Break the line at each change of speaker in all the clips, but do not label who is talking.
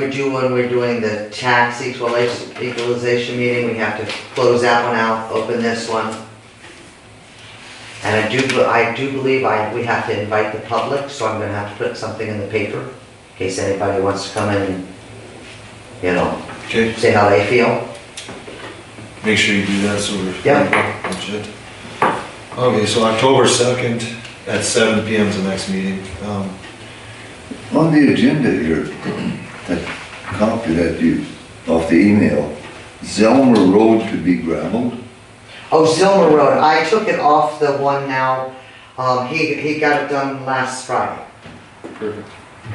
We do when we're doing the tax equalization, equalization meeting, we have to close that one out, open this one. And I do, I do believe I, we have to invite the public, so I'm gonna have to put something in the paper, in case anybody wants to come in and, you know,
Okay,
say how they feel.
make sure you do that so we're.
Yeah.
Legit. Okay, so October second at seven P M is the next meeting. Um,
On the agenda here, that copy that you, off the email, Zelmer Road to be gravelled?
Oh, Zilmer Road, I took it off the one now, um, he, he got it done last Friday.
Perfect.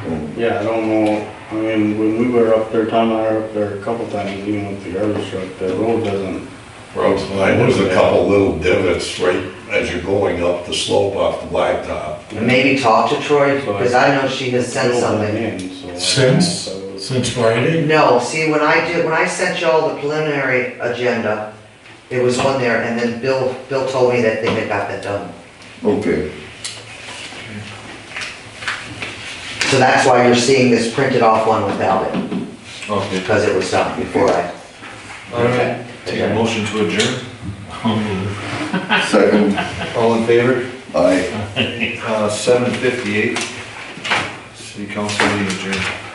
Oh,
Yeah, I don't know, I mean, when we were up there, Tom and I were up there a couple times, even with the garbage truck, the road doesn't,
Roads, line, there's a couple little divots right as you're going up the slope off the blacktop.
Maybe talk to Troy, because I know she has sent something.
in, so.
Since?
So-
Since Friday?
No, see, when I did, when I sent y'all the preliminary agenda, it was on there, and then Bill, Bill told me that they had got that done.
Okay,
So that's why you're seeing this printed off one without it,
Okay.
because it was done before I.
All right, take a motion to adjourn.
second,
All in favor?
I.
Uh, seven fifty-eight. City council meeting adjourned.